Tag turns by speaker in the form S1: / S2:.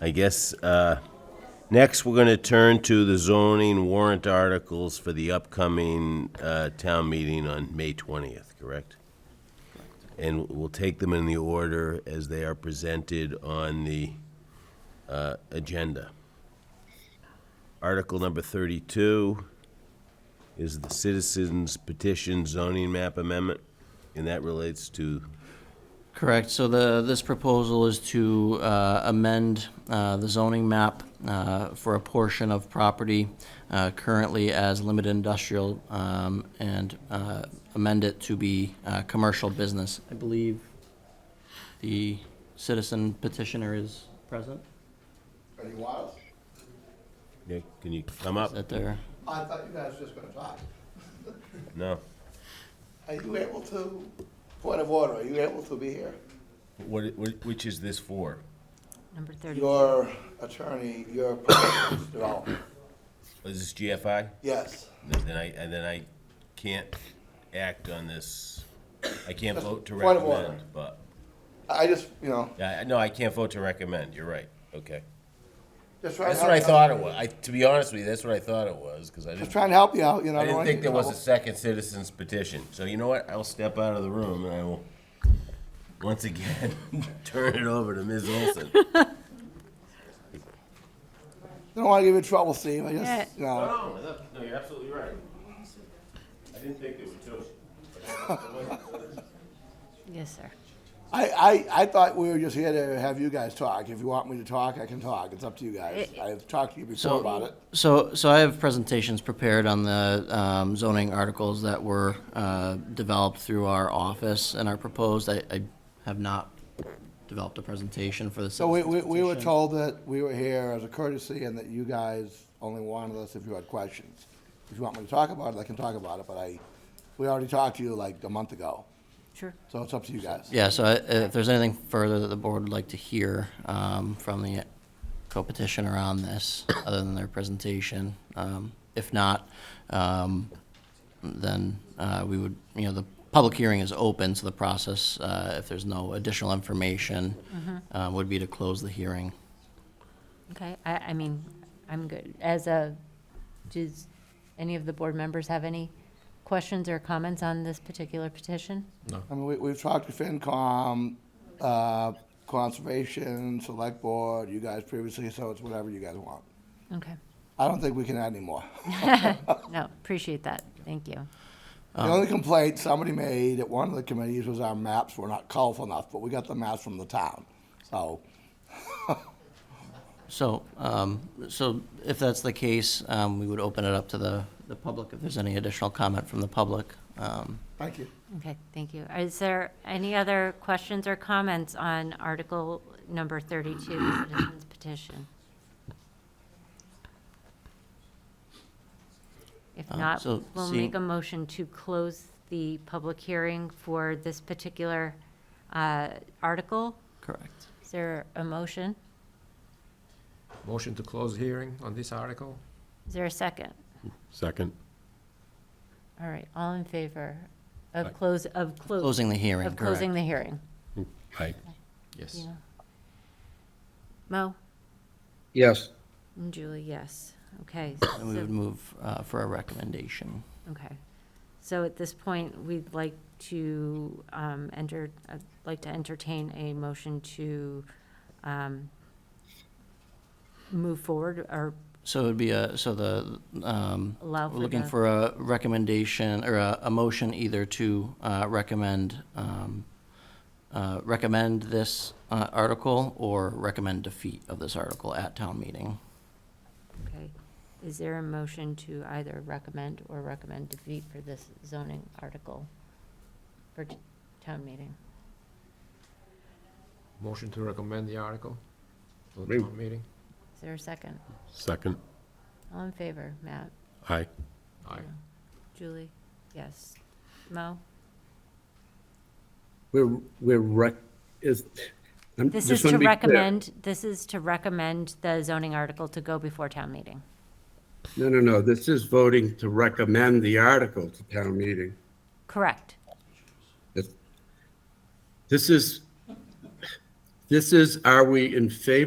S1: I guess, uh, next, we're going to turn to the zoning warrant articles for the upcoming uh, town meeting on May 20th, correct? And we'll take them in the order as they are presented on the uh, agenda. Article number 32 is the citizens petition zoning map amendment, and that relates to,
S2: Correct, so the, this proposal is to uh, amend uh, the zoning map uh, for a portion of property uh, currently as limited industrial um, and uh, amend it to be uh, commercial business. I believe the citizen petitioner is present,
S3: Are you wild?
S1: Nick, can you come up?
S2: is that there?
S3: I thought you guys were just gonna talk.
S1: No?
S3: Are you able to, point of order, are you able to be here?
S1: What, what- which is this for?
S4: Number 30.
S3: Your attorney, your proposed development,
S1: Is this GFI?
S3: yes.
S1: Then I, and then I can't act on this, I can't vote to
S3: Point of order.
S1: recommend, but,
S3: I just, you know,
S1: I- I- no, I can't vote to recommend, you're right, okay.
S3: just trying to.
S1: That's what I
S3: help you
S1: thought
S3: out.
S1: it was, I, to be honest with you, that's what I thought it was, because I
S3: Just
S1: didn't,
S3: trying to help you out, you know.
S1: I
S3: don't
S1: didn't
S3: wanna
S1: think there
S3: get in
S1: was a
S3: trouble.
S1: second citizen's petition. So you know what, I'll step out of the room and I will, once again, turn it over to Ms. Olson.
S3: Don't wanna give you trouble, Steve, I
S4: Yeah.
S3: just, you know,
S1: No, no, no, you're absolutely right. I didn't think there were two.
S4: Yes, sir.
S3: I, I, I thought we were just here to have you guys talk. If you want me to talk, I can talk, it's up to you guys. I've talked to you before about it.
S2: So, so I have presentations prepared on the um, zoning articles that were uh, developed through our office and are proposed. I, I have not developed a presentation for the
S3: So we, we,
S2: citizens
S3: we were
S2: petition.
S3: told that we were here as a courtesy and that you guys only wanted us if you had questions. If you want me to talk about it, I can talk about it, but I, we already talked to you like a month ago,
S4: Sure.
S3: so it's up to you guys.
S2: Yeah, so I- uh, if there's anything further that the board would like to hear um, from the co-petitioner on this, other than their presentation. um, If not, um, then uh, we would, you know, the public hearing is open, so the process, uh, if there's no additional information,
S4: Mm-hmm.
S2: uh, would be to close the hearing.
S4: Okay, I, I mean, I'm good. As a, does any of the board members have any questions or comments on this particular petition?
S3: I mean, we, we've talked to FinCom, uh, Conservation, Select Board, you guys previously, so it's whatever you guys want.
S4: Okay,
S3: I don't think we can add any more.
S4: no, appreciate that, thank you.
S3: The only complaint somebody made at one of the committees was our maps were not colorful enough, but we got the maps from the town, so.
S2: So, um, so if that's the case, um, we would open it up to the, the public if there's any additional comment from the public. um,
S3: Thank you.
S4: Okay, thank you. Is there any other questions or comments on Article Number 32, the Citizens Petition? If
S2: Uh,
S4: not,
S2: so
S4: we'll
S2: seeing-
S4: make a motion to close the public hearing for this particular uh, article.
S2: Correct.
S4: Is there a motion?
S5: Motion to close hearing on this article?
S4: Is there a second?
S6: Second.
S4: All right, all in favor of
S6: Aye.
S4: close, of close.
S2: Closing the hearing,
S4: Of closing
S2: correct.
S4: the hearing.
S6: Aye.
S5: Yes.
S4: Yeah. Mo?
S7: Yes,
S4: And Julie, yes. Okay.
S2: And we
S4: so-
S2: would move uh, for a recommendation.
S4: Okay. So at this point, we'd like to um, enter, I'd like to entertain a motion to um, move forward or
S2: So it would be a, so the, um,
S4: Allow
S2: we're
S4: for
S2: looking
S4: the-
S2: for a recommendation or a, a motion either to uh, recommend, um, uh, recommend this uh, article or recommend defeat of this article at town meeting.
S4: Okay, is there a motion to either recommend or recommend defeat for this zoning article for t- town meeting?
S5: Motion to recommend the article to the
S6: Move.
S5: town meeting?
S4: Is there a second?
S6: Second.
S4: All in favor, Matt?
S6: Aye.
S5: Aye.
S4: Julie? Yes. Mo?
S7: we're, we're rec, is. I'm-
S4: This is
S7: just
S4: to
S7: wanna be clear.
S4: recommend, this is to recommend the zoning article to go before town meeting.
S7: No, no, no, this is voting to recommend the article to town meeting.
S4: Correct.
S7: This- This is, this is, are we in favor